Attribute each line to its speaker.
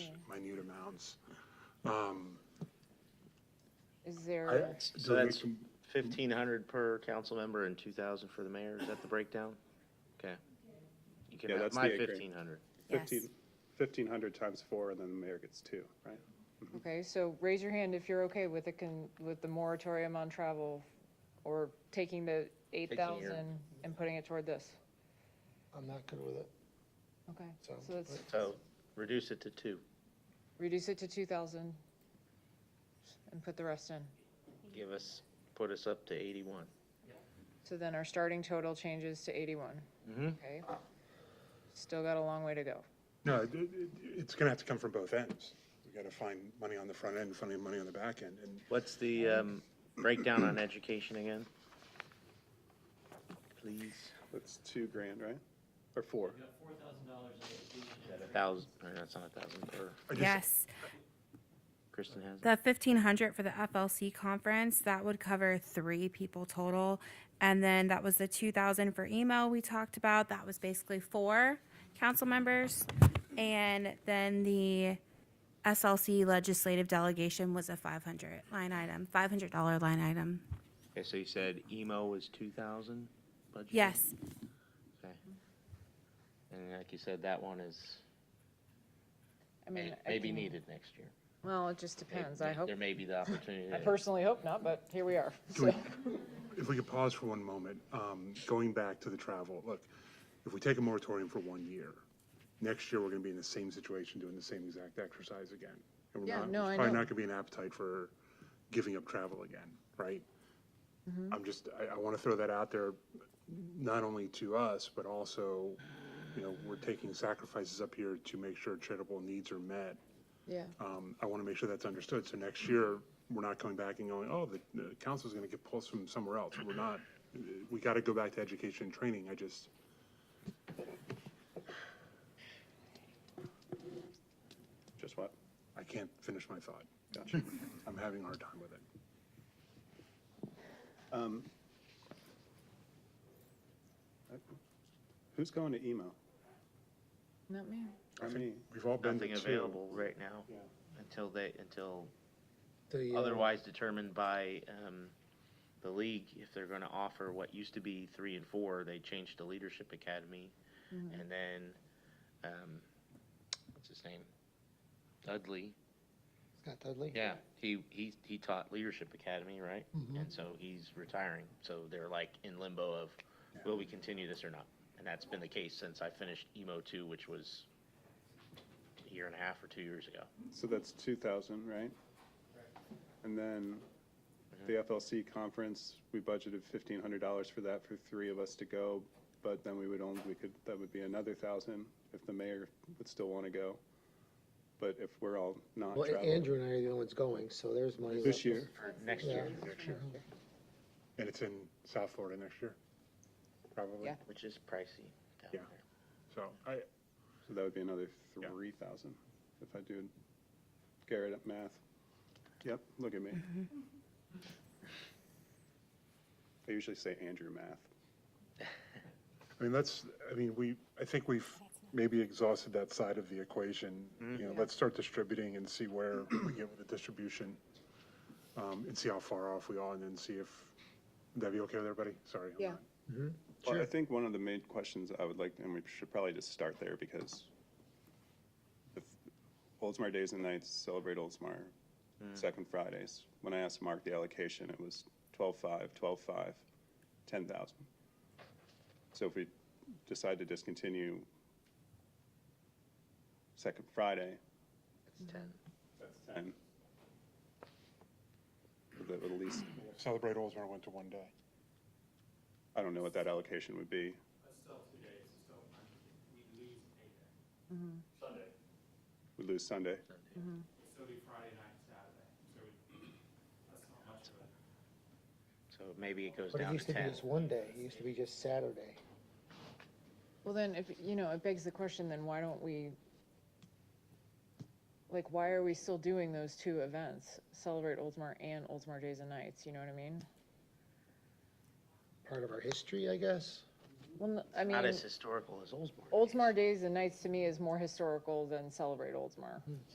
Speaker 1: minute amounts. Um,
Speaker 2: Is
Speaker 1: I-
Speaker 2: there,
Speaker 1: so
Speaker 3: Oh, So
Speaker 1: we
Speaker 3: that's
Speaker 1: can-
Speaker 3: fifteen hundred per council member and two thousand for the mayor, is that the breakdown? Okay. You can
Speaker 4: Yeah,
Speaker 3: have
Speaker 4: that's
Speaker 3: my
Speaker 4: the acre.
Speaker 3: fifteen hundred.
Speaker 2: yes.
Speaker 4: 15 1,500 times four, and then the mayor gets two, right?
Speaker 2: Okay, so raise your hand if you're okay with the, con- with the moratorium on travel or taking the eight thousand and putting it toward this.
Speaker 5: I'm not good with it.
Speaker 2: Okay, so
Speaker 5: Sounds
Speaker 2: let's
Speaker 3: So reduce it to two.
Speaker 2: reduce it to two thousand and put the rest in.
Speaker 3: Give us, put us up to eighty-one.
Speaker 2: So then our starting total changes to eighty-one,
Speaker 3: Mm-hmm.
Speaker 2: okay? Still got a long way to go.
Speaker 1: No, it- it- it's going to have to come from both ends. We got to find money on the front end, find money on the back end, and
Speaker 3: What's the, um, breakdown on education again? Please,
Speaker 4: That's two grand, right? Or four?
Speaker 3: a thousand, or that's not a thousand per,
Speaker 1: I just-
Speaker 6: Yes,
Speaker 3: Kristen has it.
Speaker 6: the fifteen hundred for the FLC conference, that would cover three people total. And then that was the two thousand for email we talked about, that was basically four council members. And then the SLC legislative delegation was a five hundred line item, five hundred dollar line item.
Speaker 3: Okay, so you said emo was two thousand budget?
Speaker 6: Yes,
Speaker 3: Okay. And like you said, that one is
Speaker 2: I mean. I
Speaker 3: maybe
Speaker 2: can-
Speaker 3: needed next year.
Speaker 2: Well, it just
Speaker 3: May-
Speaker 2: depends, I
Speaker 3: may-
Speaker 2: hope.
Speaker 3: There may be the opportunity.
Speaker 2: I
Speaker 3: to-
Speaker 2: personally hope not, but here we are,
Speaker 1: Can we-
Speaker 2: so.
Speaker 1: If we could pause for one moment, um, going back to the travel, look, if we take a moratorium for one year, next year, we're going to be in the same situation, doing the same exact exercise again. And we're
Speaker 2: Yeah,
Speaker 1: not-
Speaker 2: no,
Speaker 1: there's
Speaker 2: I
Speaker 1: Probably
Speaker 2: know.
Speaker 1: not going to be an appetite for giving up travel again, right?
Speaker 2: Mm-hmm.
Speaker 1: I'm just, I, I want to throw that out there, not only to us, but also, you know, we're taking sacrifices up here to make sure charitable needs are met.
Speaker 2: Yeah.
Speaker 1: Um, I want to make sure that's understood. So next year, we're not coming back and going, oh, the, the council's going to get pulled from somewhere else. We're not, we got to go back to education and training. I just,
Speaker 4: Just what?
Speaker 1: I can't finish my thought.
Speaker 4: Gotcha.
Speaker 1: I'm having a hard time with it.
Speaker 4: Um, I- Who's going to emo?
Speaker 2: Not me.
Speaker 4: Or me?
Speaker 1: We've all been to
Speaker 3: Nothing
Speaker 1: two.
Speaker 3: available right now
Speaker 4: Yeah.
Speaker 3: until they, until
Speaker 5: The, uh,
Speaker 3: otherwise determined by, um, the league, if they're gonna offer what used to be three and four, they changed to Leadership Academy. And then, um, what's his name? Dudley.
Speaker 5: Scott Dudley?
Speaker 3: Yeah, he, he, he taught Leadership Academy, right?
Speaker 5: Mm-hmm.
Speaker 3: And so he's retiring, so they're like in limbo of, will we continue this or not? And that's been the case since I finished emo two, which was a year and a half or two years ago.
Speaker 4: So that's 2,000, right? And then the FLC conference, we budgeted $1,500 for that for three of us to go, but then we would only, we could, that would be another 1,000 if the mayor would still want to go. But if we're all not
Speaker 5: Well, A-
Speaker 4: traveling.
Speaker 5: Andrew and I are the only ones going, so there's money.
Speaker 4: This
Speaker 5: left.
Speaker 4: year,
Speaker 3: Or next year,
Speaker 1: Next year. And it's in South Florida next year, probably.
Speaker 2: Yeah.
Speaker 3: which is pricey down
Speaker 1: Yeah.
Speaker 3: there.
Speaker 1: So I,
Speaker 4: so that would be another
Speaker 1: Yeah.
Speaker 4: 3,000 if I do Garrett at math. Yep, look at me. I usually say Andrew math.
Speaker 1: I mean, that's, I mean, we, I think we've maybe exhausted that side of the equation.
Speaker 3: Mm-hmm.
Speaker 1: You know, let's start distributing and see where we get with the distribution. Um, and see how far off we are and then see if, would that be okay with everybody? Sorry. I'm
Speaker 2: Yeah.
Speaker 1: not-
Speaker 4: Well, I think one of the main questions I would like, and we should probably just start there because if Oldsmar Days and Nights celebrate Oldsmar second Fridays. When I asked Mark the allocation, it was 12.5, 12.5, 10,000. So if we decide to discontinue second Friday,
Speaker 3: It's ten.
Speaker 4: that's 10. That would at least,
Speaker 1: Celebrate Oldsmar went to one day.
Speaker 4: I don't know what that allocation would be.
Speaker 7: That's still two days, so we lose a day. Sunday.
Speaker 4: We'd lose Sunday.
Speaker 7: It'd still be Friday night, Saturday, so we- that's not much of a.
Speaker 3: So maybe it goes
Speaker 5: But it
Speaker 3: down
Speaker 5: used
Speaker 3: to
Speaker 5: to be
Speaker 3: ten.
Speaker 5: just one day, it used to be just Saturday.
Speaker 2: Well, then, if, you know, it begs the question, then why don't we, like, why are we still doing those two events? Celebrate Oldsmar and Oldsmar Days and Nights, you know what I mean?
Speaker 5: Part of our history, I guess.
Speaker 2: Well, n- I mean,
Speaker 3: Not as historical as Oldsmar.
Speaker 2: Oldsmar Days and Nights to me is more historical than Celebrate Oldsmar.